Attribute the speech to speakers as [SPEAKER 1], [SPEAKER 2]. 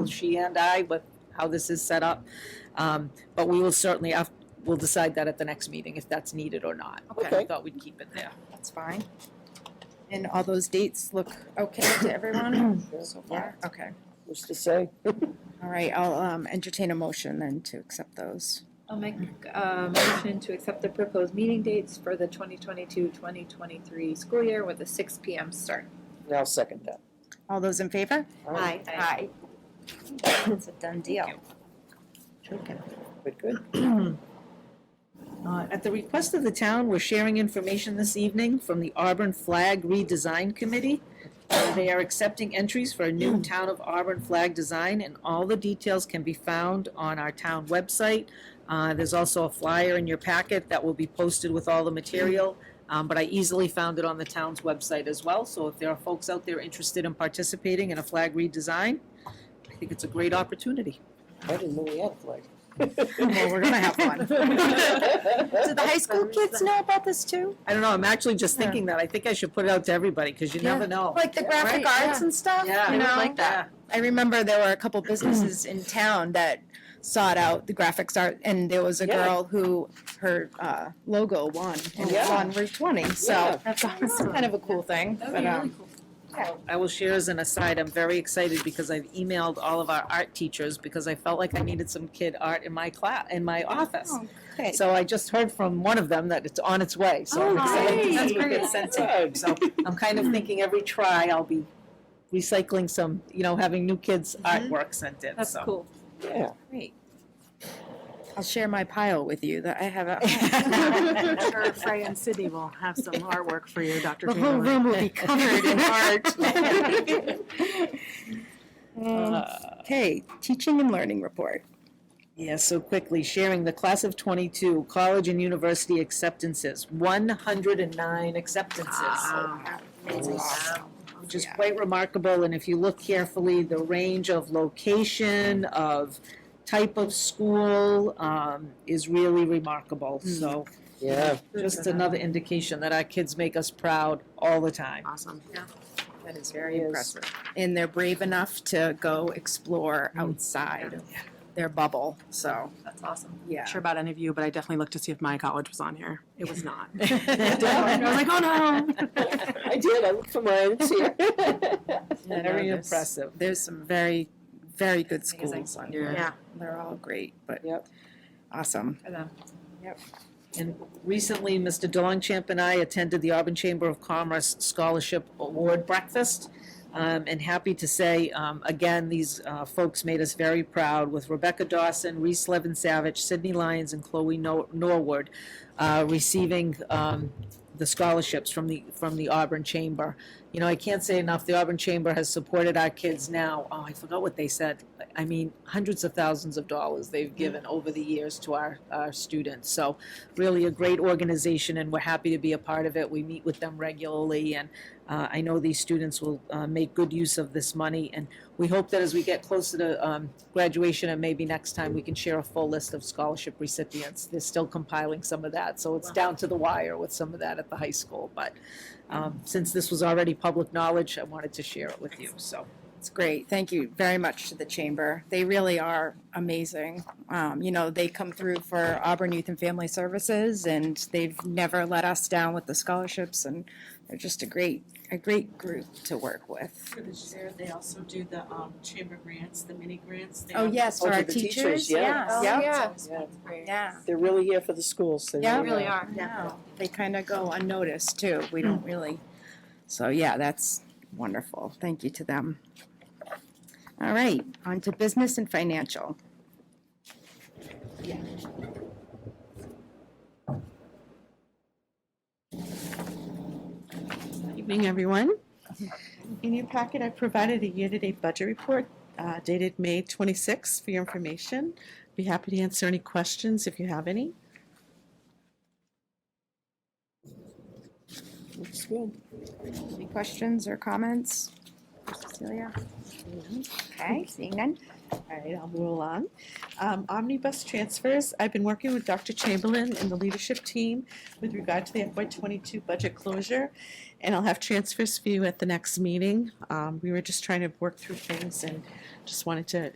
[SPEAKER 1] both she and I with how this is set up. Um, but we will certainly, af- we'll decide that at the next meeting if that's needed or not. But I
[SPEAKER 2] Okay.
[SPEAKER 1] thought we'd keep it there.
[SPEAKER 3] That's fine. And all those dates look okay to everyone so far? Okay.
[SPEAKER 2] What's to say?
[SPEAKER 3] All right, I'll um, entertain a motion then to accept those.
[SPEAKER 4] I'll make a motion to accept the proposed meeting dates for the 2022-2023 school year with a 6 PM start.
[SPEAKER 2] And I'll second that.
[SPEAKER 3] All those in favor?
[SPEAKER 2] All right,
[SPEAKER 4] Aye.
[SPEAKER 3] It's a done deal.
[SPEAKER 2] Good, good.
[SPEAKER 1] Uh, At the request of the town, we're sharing information this evening from the Auburn Flag Redesign Committee. Uh, They are accepting entries for a new Town of Auburn flag design, and all the details can be found on our town website. Uh, There's also a flyer in your packet that will be posted with all the material, um, but I easily found it on the town's website as well. So if there are folks out there interested in participating in a flag redesign, I think it's a great opportunity.
[SPEAKER 2] I didn't know we had a flag.
[SPEAKER 3] Well, we're gonna have one. Do the high school kids know about this too?
[SPEAKER 1] I don't know, I'm actually just
[SPEAKER 3] Yeah.
[SPEAKER 1] thinking that. I think I should put it out to everybody, because you
[SPEAKER 3] Yeah.
[SPEAKER 1] never know.
[SPEAKER 3] Like the graphic
[SPEAKER 1] Right,
[SPEAKER 3] arts and stuff,
[SPEAKER 1] Yeah.
[SPEAKER 3] you
[SPEAKER 1] I would
[SPEAKER 3] know?
[SPEAKER 1] that.
[SPEAKER 3] I remember there were a couple businesses in town that sought out the graphics art, and there was a
[SPEAKER 2] Yeah.
[SPEAKER 3] girl who, her uh, logo won, and it was
[SPEAKER 2] Yeah.
[SPEAKER 3] on Route 20,
[SPEAKER 2] Yeah.
[SPEAKER 3] so that's awesome. kind of a cool thing.
[SPEAKER 4] That'd
[SPEAKER 3] but,
[SPEAKER 4] be
[SPEAKER 3] um,
[SPEAKER 4] really cool.
[SPEAKER 1] I will share as an aside, I'm very excited because I've emailed all of our art teachers because I felt like I needed some kid art in my class, in my office.
[SPEAKER 3] Okay.
[SPEAKER 1] So I just heard from one of them that it's on its way, so I'm
[SPEAKER 4] Oh,
[SPEAKER 1] excited to
[SPEAKER 4] great. That's
[SPEAKER 1] see what
[SPEAKER 4] great.
[SPEAKER 1] gets sent to them. So I'm kind of thinking every try I'll be recycling some, you know, having new kids' artwork sent in,
[SPEAKER 4] That's
[SPEAKER 1] so.
[SPEAKER 4] cool.
[SPEAKER 2] Yeah,
[SPEAKER 3] Great. I'll share my pile with you that I have at home.
[SPEAKER 1] That's
[SPEAKER 5] I'm sure Frey and Sydney will have some artwork for you, Dr.
[SPEAKER 3] The whole
[SPEAKER 5] Chamberlain.
[SPEAKER 3] room will be covered in art. Um,
[SPEAKER 1] Uh,
[SPEAKER 3] Okay, teaching and learning report.
[SPEAKER 1] Yeah, so quickly, sharing the class of twenty-two, college and university acceptances, one hundred and nine acceptances,
[SPEAKER 5] Wow.
[SPEAKER 1] which is
[SPEAKER 3] yeah.
[SPEAKER 1] quite remarkable, and if you look carefully, the range of location, of type of school, um, is really remarkable,
[SPEAKER 3] Mm.
[SPEAKER 1] so
[SPEAKER 2] yeah,
[SPEAKER 1] just another indication that our kids make us proud all the time.
[SPEAKER 5] Awesome.
[SPEAKER 3] That is very impressive. And they're brave enough to go explore outside of their bubble, so,
[SPEAKER 4] That's awesome.
[SPEAKER 3] yeah.
[SPEAKER 5] Not sure about any of you, but I definitely looked to see if my college was on here. It was not. I
[SPEAKER 1] Very
[SPEAKER 5] was like, oh no.
[SPEAKER 2] I did, I looked for mine, it's here.
[SPEAKER 3] I know there's-
[SPEAKER 1] impressive.
[SPEAKER 3] There's some very, very good
[SPEAKER 4] Amazing.
[SPEAKER 3] schools on here.
[SPEAKER 5] Yeah.
[SPEAKER 3] They're all great, but.
[SPEAKER 2] Yep.
[SPEAKER 3] Awesome.
[SPEAKER 4] For them.
[SPEAKER 1] And recently, Mr. Dongchamp and I attended the Auburn Chamber of Commerce Scholarship Award Breakfast. Um, and happy to say, um, again, these, uh, folks made us very proud with Rebecca Dawson, Reese Levin Savage, Sydney Lyons, and Chloe Nor- Norwood, uh, receiving, um, the scholarships from the, from the Auburn Chamber. You know, I can't say enough, the Auburn Chamber has supported our kids now, oh, I forgot what they said. I mean, hundreds of thousands of dollars they've given over the years to our, our students. So, really a great organization, and we're happy to be a part of it. We meet with them regularly, and uh, I know these students will uh, make good use of this money. And we hope that as we get closer to um, graduation, and maybe next time, we can share a full list of scholarship recipients. They're still compiling some of that, so it's down to the wire with some of that at the high school. But um, since this was already public knowledge, I wanted to share it with you, so.
[SPEAKER 3] It's great. Thank you very much to the chamber. They really are amazing. Um, you know, they come through for Auburn Youth and Family Services and they've never let us down with the scholarships and they're just a great, a great group to work with.
[SPEAKER 6] For this year, they also do the um, chamber grants, the mini grants. They
[SPEAKER 3] Oh,
[SPEAKER 6] have-
[SPEAKER 3] yes,
[SPEAKER 2] Oh,
[SPEAKER 3] for
[SPEAKER 2] for
[SPEAKER 3] our
[SPEAKER 2] the teachers,
[SPEAKER 3] teachers,
[SPEAKER 2] yeah.
[SPEAKER 3] yes.
[SPEAKER 2] Yeah.
[SPEAKER 4] Oh, Yeah.
[SPEAKER 2] Yeah.
[SPEAKER 3] Yeah.
[SPEAKER 2] They're really here for the schools, they
[SPEAKER 3] Yeah.
[SPEAKER 4] They really are.
[SPEAKER 3] No, they kind of go unnoticed too. We don't really, so yeah, that's wonderful. Thank you to them. All right, on to business and financial.
[SPEAKER 5] Evening, everyone.
[SPEAKER 7] In your packet, I provided a year-to-date budget report uh, dated May 26 for your information. Be happy to answer any questions if you have any.
[SPEAKER 2] Looks good.
[SPEAKER 3] Any questions or comments? Cecilia? Okay, seeing none.
[SPEAKER 7] All right, I'll move along. Um, Omnibus transfers, I've been working with Dr. Chamberlain and the leadership team with regard to the FY twenty-two budget closure, and I'll have transfers for you at the next meeting. Um, we were just trying to work through things and just wanted to